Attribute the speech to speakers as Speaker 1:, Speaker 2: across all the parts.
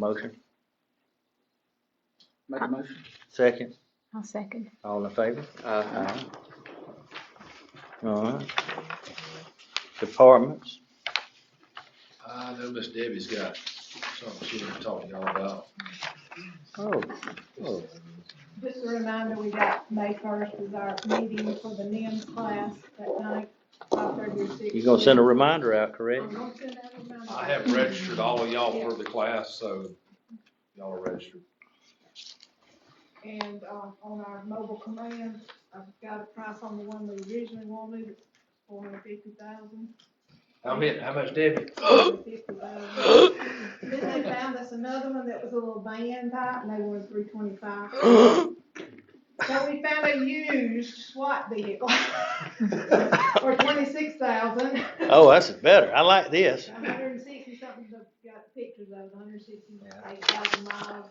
Speaker 1: Motion,
Speaker 2: Make a motion.
Speaker 1: second,
Speaker 3: I'll second.
Speaker 1: all in favor?
Speaker 2: Uh,
Speaker 1: All right. Departments,
Speaker 4: I know Miss Uh, Debbie's got something she was talking y'all about.
Speaker 1: oh, oh,
Speaker 5: Just a reminder, we got May first is our meeting for the NIM class that night, five thirty or six.
Speaker 1: you gonna send a reminder out, correct?
Speaker 5: I'm gonna send that reminder.
Speaker 4: I have registered all of y'all for the class, so y'all are registered.
Speaker 5: And, uh, on our mobile command, I've got a price on the one we originally wanted, four hundred fifty thousand.
Speaker 4: How many, how much Debbie?
Speaker 5: Then they found us another one that was a little van type, and they were three twenty-five. So we found a used SWAT vehicle for twenty-six thousand.
Speaker 1: Oh, that's better, I like this.
Speaker 5: hundred and sixty something, the- got pictures of it, hundred and sixty-eight thousand miles.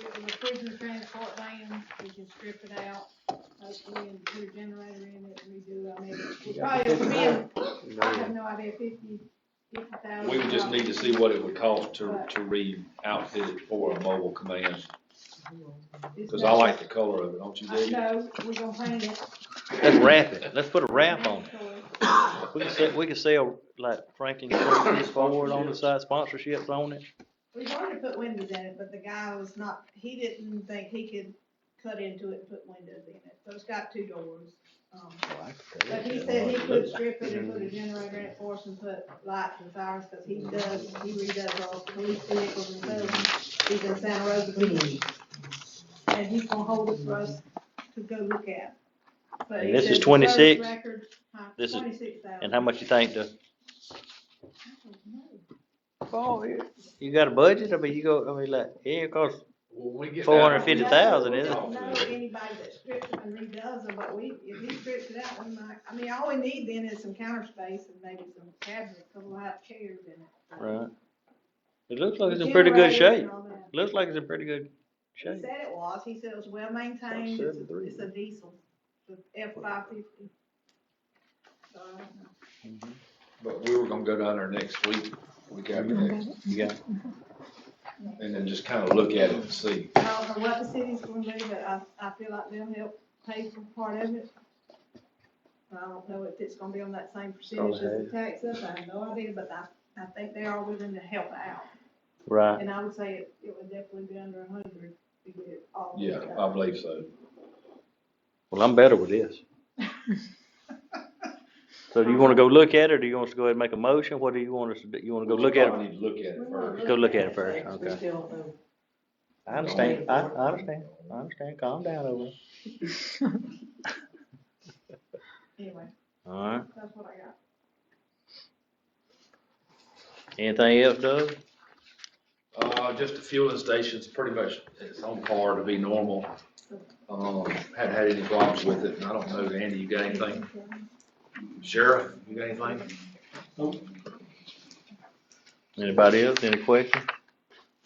Speaker 5: It was a prison transport van, we can strip it out, hopefully, and put a generator in it, and redo, I mean, it probably will be, I have no idea, fifty, fifty thousand.
Speaker 4: We would just need to see what it would cost to, to re-outfit it for a mobile command, because I like the color of it, don't you,
Speaker 5: I
Speaker 4: Debbie?
Speaker 5: know, we gonna paint it.
Speaker 1: Let's wrap it, let's put a wrap on it.
Speaker 5: mandatory.
Speaker 1: We can sell, we can sell like Franklin County's forward on the side, sponsorships on it.
Speaker 5: We've already put windows in it, but the guy was not, he didn't think he could cut into it and put windows in it, so it's got two doors. Um, But he said he could strip it and put a generator in it for us and put lights and sirens, cause he does, he redoes all the police vehicles and stuff. He's in Santa Rosa Beach. And he's gonna hold it for us to go look at. But
Speaker 1: And
Speaker 5: he
Speaker 1: this is
Speaker 5: said the first
Speaker 1: 26?
Speaker 5: record, huh,
Speaker 1: This is-
Speaker 5: 26,000.
Speaker 1: And how much you think the,
Speaker 5: I don't know.
Speaker 1: you got a budget, I mean, you go, I mean, like, yeah, it costs
Speaker 4: When we get down-
Speaker 1: 450,000,
Speaker 5: We
Speaker 1: isn't
Speaker 5: don't know anybody that strips them and redoes them, but we, if he strips it out, we might, I mean, all we need then is some counter space and maybe some cabinets, a couple of hot chairs in it.
Speaker 1: Right. It looks like it's in pretty good
Speaker 5: Generators
Speaker 1: shape,
Speaker 5: and all that.
Speaker 1: looks like it's in pretty good
Speaker 5: He
Speaker 1: shape.
Speaker 5: said it was, he said it was well maintained, it's, a- it's a diesel, the F five fifty. So, I don't know.
Speaker 4: But we were gonna go down there next week, week after next,
Speaker 1: Yeah,
Speaker 4: and then just kind of look at it and see.
Speaker 5: I don't know what the city's gonna do, but I, I feel like they'll help pay for part of it. I don't know if it's gonna be on that same percentage as the taxes, I have no idea, but I, I think they are willing to help out.
Speaker 1: right,
Speaker 5: And I would say it, it would definitely be under a hundred to get it all.
Speaker 4: Yeah,
Speaker 5: done.
Speaker 4: I believe so.
Speaker 1: well, I'm better with this. So do you wanna go look at it, or do you want us to go ahead and make a motion, what do you want us to do, you wanna go look at
Speaker 4: We
Speaker 1: it?
Speaker 4: need to look at it first.
Speaker 1: Go look at it first,
Speaker 6: We
Speaker 1: okay.
Speaker 6: still don't know.
Speaker 1: I understand, I, I understand, I understand, calm down over
Speaker 5: Anyway,
Speaker 1: Alright,
Speaker 5: that's what I got.
Speaker 1: anything else, Doug?
Speaker 4: Uh, just the fueling station's pretty much its on par to be normal. Um, hadn't had any problems with it, and I don't know, Andy, you got anything? Sheriff, you got anything?
Speaker 1: Anybody else, any questions?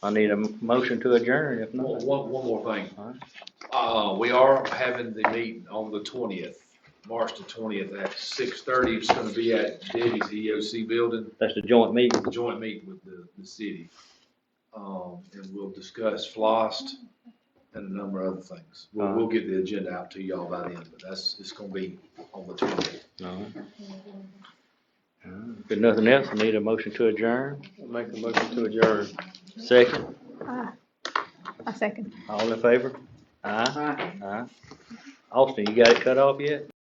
Speaker 1: I need a m- motion to adjourn, if
Speaker 4: One,
Speaker 1: not.
Speaker 4: one one more thing.
Speaker 1: All right.
Speaker 4: Uh, we are having the meeting on the twentieth, March the twentieth at six thirty. It's gonna be at Debbie's EOC building.
Speaker 1: That's the joint meeting.
Speaker 4: joint meeting with the, the city. Um, and we'll discuss FLOST and a number of other things. We'll, we'll get the agenda out to y'all by then, but that's, it's gonna be on the twentieth.
Speaker 1: All right. If nothing else, I need a motion to adjourn.
Speaker 2: Make the motion to adjourn.
Speaker 1: Second,
Speaker 3: Ah, I'll second.
Speaker 1: all in favor? Aye,
Speaker 2: Aye.
Speaker 1: aye. Austin, you got it cut off yet?